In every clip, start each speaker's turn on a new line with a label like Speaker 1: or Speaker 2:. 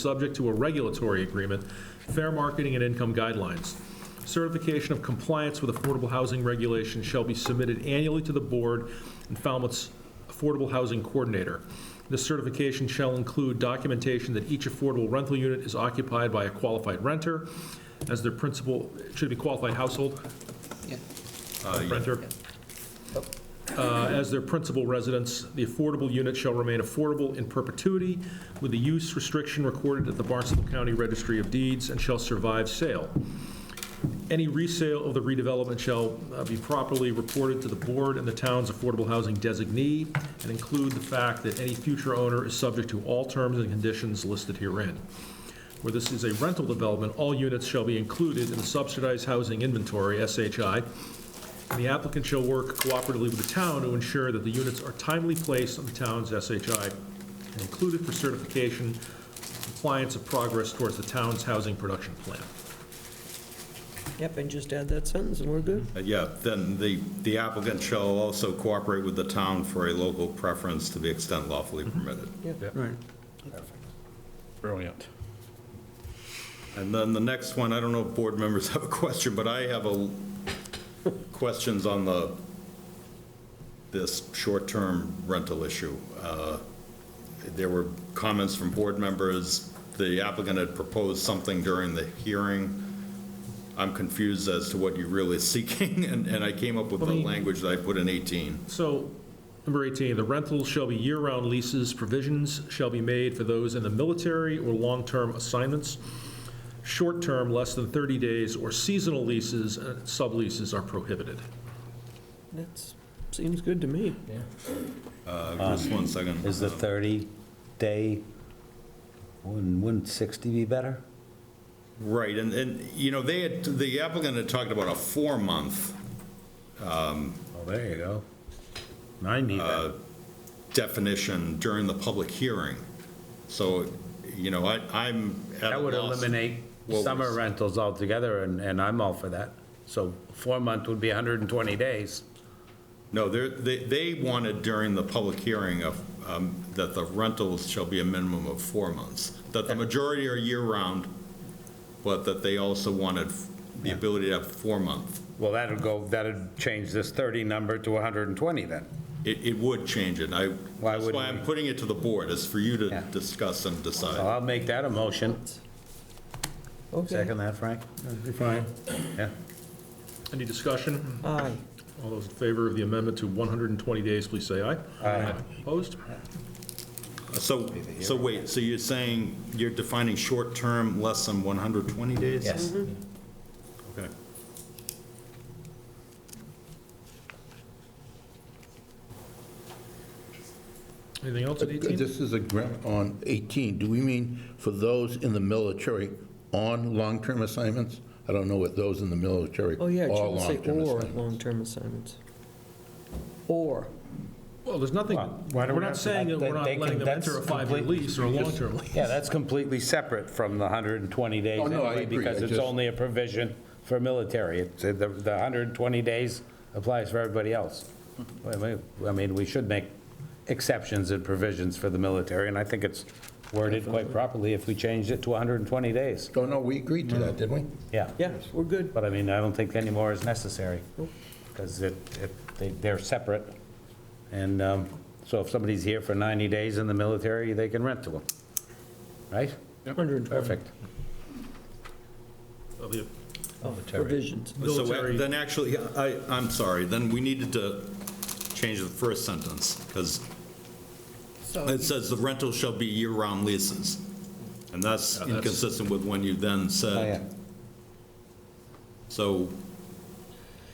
Speaker 1: subject to a regulatory agreement, fair marketing and income guidelines. Certification of compliance with affordable housing regulations shall be submitted annually to the board and Falmouth's Affordable Housing Coordinator. This certification shall include documentation that each affordable rental unit is occupied by a qualified renter as their principal, it should be qualified household
Speaker 2: Yeah.
Speaker 1: renter. Uh, As their principal residence, the affordable unit shall remain affordable in perpetuity with the use restriction recorded at the Barnstable County Registry of Deeds and shall survive sale. Any resale of the redevelopment shall uh, be properly reported to the board and the town's affordable housing designee and include the fact that any future owner is subject to all terms and conditions listed herein. Where this is a rental development, all units shall be included in the subsidized housing inventory, SHI, the applicant shall work cooperatively with the town to ensure that the units are timely placed on the town's SHI and included for certification, compliance of progress towards the town's housing production plan.
Speaker 2: Yep, and just add that sentence, and we're good.
Speaker 3: Uh, Yeah, then the the applicant shall also cooperate with the town for a local preference to the extent lawfully permitted.
Speaker 1: Yeah.
Speaker 2: Right.
Speaker 4: Brilliant.
Speaker 3: And then the next one, I don't know if board members have a question, but I have a, questions on the, this short-term rental issue. Uh, There were comments from board members, the applicant had proposed something during the hearing. I'm confused as to what you're really seeking, and, and I came up with the
Speaker 1: Let me-
Speaker 3: language that I put in 18.
Speaker 1: So, number 18, the rentals shall be year-round leases, provisions shall be made for those in the military or long-term assignments. Short-term, less than 30 days, or seasonal leases and subleases are prohibited.
Speaker 2: That's, seems good to me.
Speaker 3: Uh, Just one second.
Speaker 5: Is the 30-day, wouldn't wouldn't 60 be better?
Speaker 3: Right, and, and, you know, they had, the applicant had talked about a four-month
Speaker 5: Oh, there you go. I need that.
Speaker 3: definition during the public hearing. So, you know, I, I'm at a
Speaker 5: That would
Speaker 3: loss.
Speaker 5: eliminate
Speaker 3: What was-
Speaker 5: summer rentals altogether, and, and I'm all for that. So four month would be 120 days.
Speaker 3: No, they're, they, they wanted during the public hearing of, um, that the rentals shall be a minimum of four months, that the majority are year-round, but that they also wanted the ability to have four-month.
Speaker 5: Well, that'll go, that'll change this 30 number to 120 then.
Speaker 3: It, it would change it, I,
Speaker 5: Why
Speaker 3: that's
Speaker 5: wouldn't
Speaker 3: why I'm
Speaker 5: we?
Speaker 3: putting it to the board, is for you to
Speaker 5: Yeah.
Speaker 3: discuss and decide.
Speaker 5: So I'll make that a motion.
Speaker 2: Okay.
Speaker 5: Second that, Frank?
Speaker 4: Fine.
Speaker 5: Yeah.
Speaker 1: Any discussion?
Speaker 2: Aye.
Speaker 1: All those in favor of the amendment to 120 days, please say aye. Aye. Opposed?
Speaker 3: So, so wait, so you're saying you're defining short-term less than 120 days?
Speaker 5: Yes.
Speaker 3: Okay.
Speaker 1: Anything else at 18?
Speaker 6: This is a grant on 18. Do we mean for those in the military on long-term assignments? I don't know what those in the military
Speaker 2: Oh,
Speaker 6: are
Speaker 2: yeah, it should say
Speaker 6: long-term
Speaker 2: or,
Speaker 6: assignments.
Speaker 2: long-term assignments. Or,
Speaker 1: Well, there's nothing,
Speaker 5: why do
Speaker 1: we're
Speaker 5: we
Speaker 1: not
Speaker 5: have to-
Speaker 1: saying that we're
Speaker 5: they-
Speaker 1: not
Speaker 5: they can-
Speaker 1: letting them
Speaker 5: that's
Speaker 1: enter a five-year
Speaker 5: complete-
Speaker 1: lease or a long-term lease.
Speaker 5: Yeah, that's completely separate from the 120 days
Speaker 6: Oh, no, I
Speaker 5: anyway,
Speaker 6: agree.
Speaker 5: because
Speaker 6: I
Speaker 5: it's
Speaker 6: just-
Speaker 5: only a provision for military. It's- The the 120 days applies for everybody else. I mean, I mean, we should make exceptions and provisions for the military, and I think it's worded quite properly if we changed it to 120 days.
Speaker 6: Oh, no, we agreed to that, didn't we?
Speaker 5: Yeah.
Speaker 2: yeah, we're good.
Speaker 5: But I mean, I don't think any more is necessary, because it, it- they- they're separate. And um, so if somebody's here for 90 days in the military, they can rent to them, right?
Speaker 2: 120
Speaker 5: Perfect.
Speaker 1: Of the-
Speaker 2: Oh, provisions.
Speaker 3: So
Speaker 1: Military-
Speaker 3: uh, then actually, I, I'm sorry, then we needed to change the first sentence, because it says the rental shall be year-round leases. And that's
Speaker 1: that's-
Speaker 3: inconsistent with when you then
Speaker 5: Oh, Uh,
Speaker 3: said, so,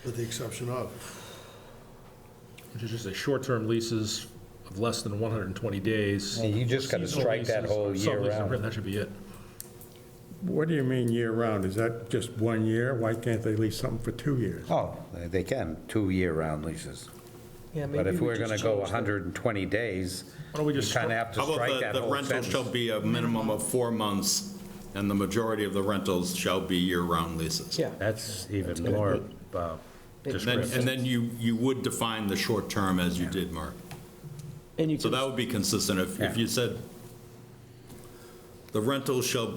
Speaker 7: With the exception of.
Speaker 1: Which is just a short-term leases of less than 120 days.
Speaker 5: Yeah, you just gotta
Speaker 1: Seasonal
Speaker 5: strike that
Speaker 1: leases,
Speaker 5: whole
Speaker 1: sublease,
Speaker 5: year round.
Speaker 1: That should be it.
Speaker 4: What do you mean year-round? Is that just one year? Why can't they lease something for two years?
Speaker 5: Oh, they- they can, two year-round leases.
Speaker 2: Yeah,
Speaker 5: But
Speaker 2: maybe
Speaker 5: if
Speaker 2: we
Speaker 5: we're
Speaker 2: just
Speaker 5: going to go
Speaker 2: change that.
Speaker 5: 120 days,
Speaker 1: Why don't we
Speaker 5: you
Speaker 1: just
Speaker 5: kind of have to
Speaker 3: how
Speaker 5: strike
Speaker 3: about
Speaker 5: that
Speaker 3: the, the
Speaker 5: whole
Speaker 3: rental shall
Speaker 5: sentence.
Speaker 3: be a minimum of four months, and the majority of the rentals shall be year-round leases?
Speaker 2: Yeah,
Speaker 5: That's even more uh,
Speaker 3: And then,
Speaker 5: descriptive.
Speaker 3: and then you, you would define the short term as you did, Mark.
Speaker 2: and you
Speaker 3: So
Speaker 2: can,
Speaker 3: that would be consistent if, if
Speaker 5: Yeah.
Speaker 3: you said The rental shall be